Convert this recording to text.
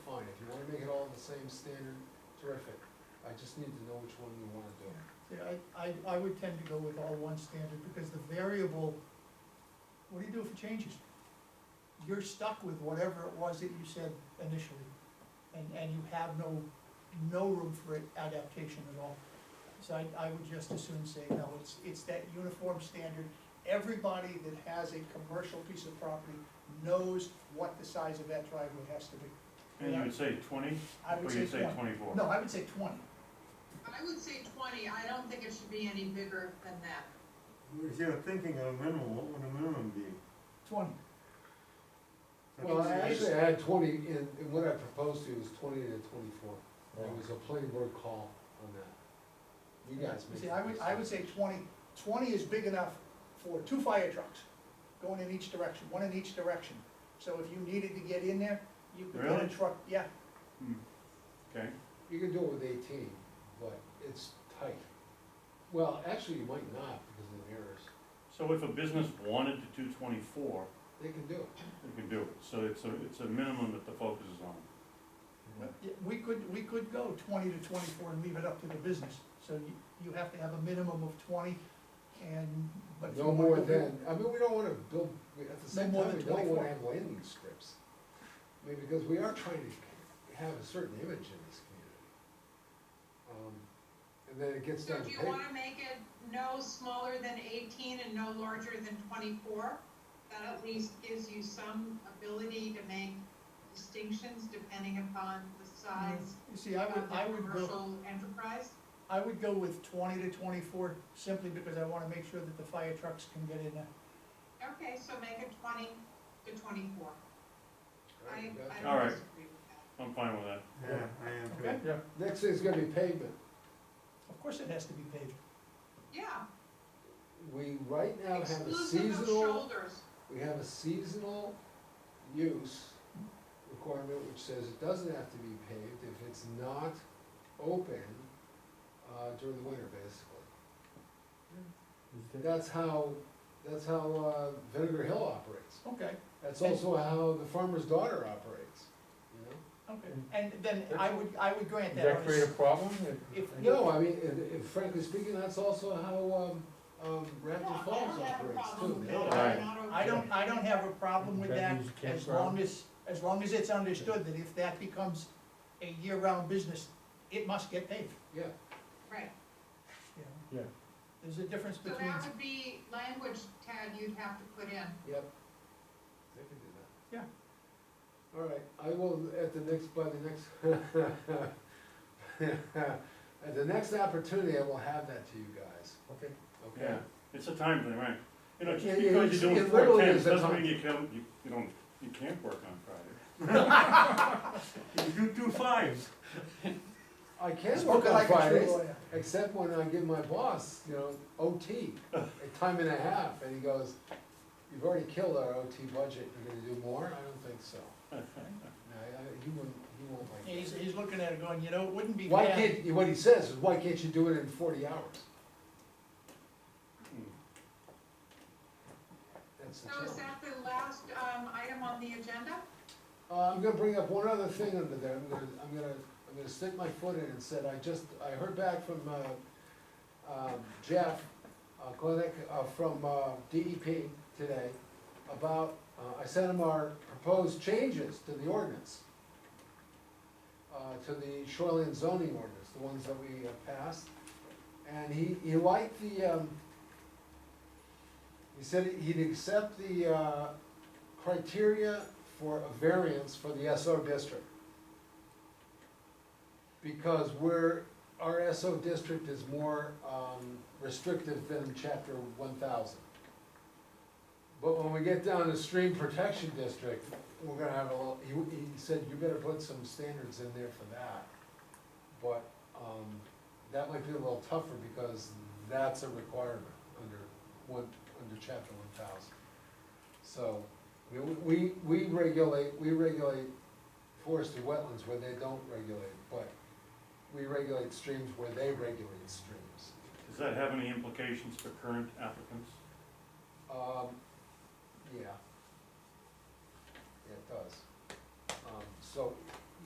same standard, terrific. I just need to know which one you wanna do. See, I, I, I would tend to go with all one standard, because the variable, what do you do if it changes? You're stuck with whatever it was that you said initially, and, and you have no, no room for it- adaptation at all. So I, I would just as soon say, no, it's, it's that uniform standard, everybody that has a commercial piece of property knows what the size of that driveway has to be. And you would say twenty, I or would you'd say say twenty, twenty-four? no, I would say twenty, I would say twenty, I don't think it should be any bigger than that. If you're thinking of a minimum, what would a minimum be? twenty, Well, I actually had twenty, and, and what I proposed to you was twenty to twenty-four. It was a plain word call on that. You guys You make. See, I would, I would say 20. 20 is big enough for two fire trucks going in each direction, one in each direction. So if you needed to get in there, you could get a Really? truck, yeah, Okay, You can do it with eighteen, but it's tight. Well, actually, you might not because of the mirrors. so if a business wanted to do twenty-four, They can do it. they could do it, so it's a, it's a minimum that the focus is on. Yeah, we could, we could go twenty to twenty-four and leave it up to the business. So you, you have to have a minimum of twenty and, but. if you No wanna more go- than, I mean, we don't wanna build, we- at the same more time, than we don't 24. wanna have landing strips. I mean, because we are trying to have a certain image in this community. Um, And then it gets So down to do you paper. wanna make it no smaller than eighteen and no larger than twenty-four? That at least gives you some ability to make distinctions depending upon the size You see, I of would, I the would go, commercial enterprise. I would go with twenty to twenty-four simply because I wanna make sure that the fire trucks can get in there. Okay, so make it twenty to twenty-four. I, I Alright, don't we got disagree you. All right. with that. I'm fine with that. Yeah, I am Okay. too. Next thing's gonna be pavement. Of course it has to be paved. Yeah, We right now have a exclusive of seasonal, shoulders. we have a seasonal use requirement which says it doesn't have to be paved if it's not open uh, during the winter, basically. That's how, that's how uh, Vinegar Hill operates. Okay. That's also how the farmer's daughter operates, you know? Okay, and then I would, I would grant that. on a s- problem? If, No, I mean, and- and frankly speaking, that's also how um, um, No, I Raptor Falls don't have a operates problem too. with They don't that. Right. I'm not I don't, I don't have a problem with That that, means as campground. long as, as long as it's understood that if that becomes a year-round business, it must get paid, Yeah, Right, you know? Yeah. There's a difference so between, that would be language, Tad, you'd have to put in. yep. They can do that. Yeah. All right, I will, at the next, by the next, at the next opportunity, I will have that to you guys, Okay. okay? Yeah, it's a time thing, right? You know, Yeah, just yeah, because it's- you're it doing four literally tens is a doesn't time. mean you can, you, you don't, you can't work on Friday. You do two fives. I can work spoken on like a true Fridays, lawyer. except when I give my boss, you know, OT, a time and a half, and he goes, you've already killed our OT budget, you're gonna do more? I don't think so. No, I- I- he wouldn't, he won't like that. He's, he's looking at it going, you know, it wouldn't be Why bad, can't, what he says is, why can't you do it in forty hours? Hmm. That's the So is challenge. that the last, um, item on the agenda? Uh, I'm gonna bring up one other thing under there, I'm gonna, I'm gonna, I'm gonna stick my foot in and said, I just, I heard back from, uh, um, Jeff, uh, Clinic, uh, from, uh, DEP today about, uh, I sent him our proposed changes to the ordinance. Uh, to the shoreline zoning ordinance, the ones that we uh, passed, and he, he liked the, um, he said he'd accept the, uh, criteria for a variance for the SO district. Because we're, our SO district is more, um, restrictive than chapter one thousand. But when we get down to stream protection district, we're gonna have a little, he, he said you better put some standards in there for that. But, um, that might be a little tougher because that's a requirement under one, under chapter one thousand. So, I mean, we, we regulate, we regulate forested wetlands where they don't regulate, but we regulate streams where they regulate streams. Does that have any implications for current applicants? Um, yeah. Yeah, it does. Um, so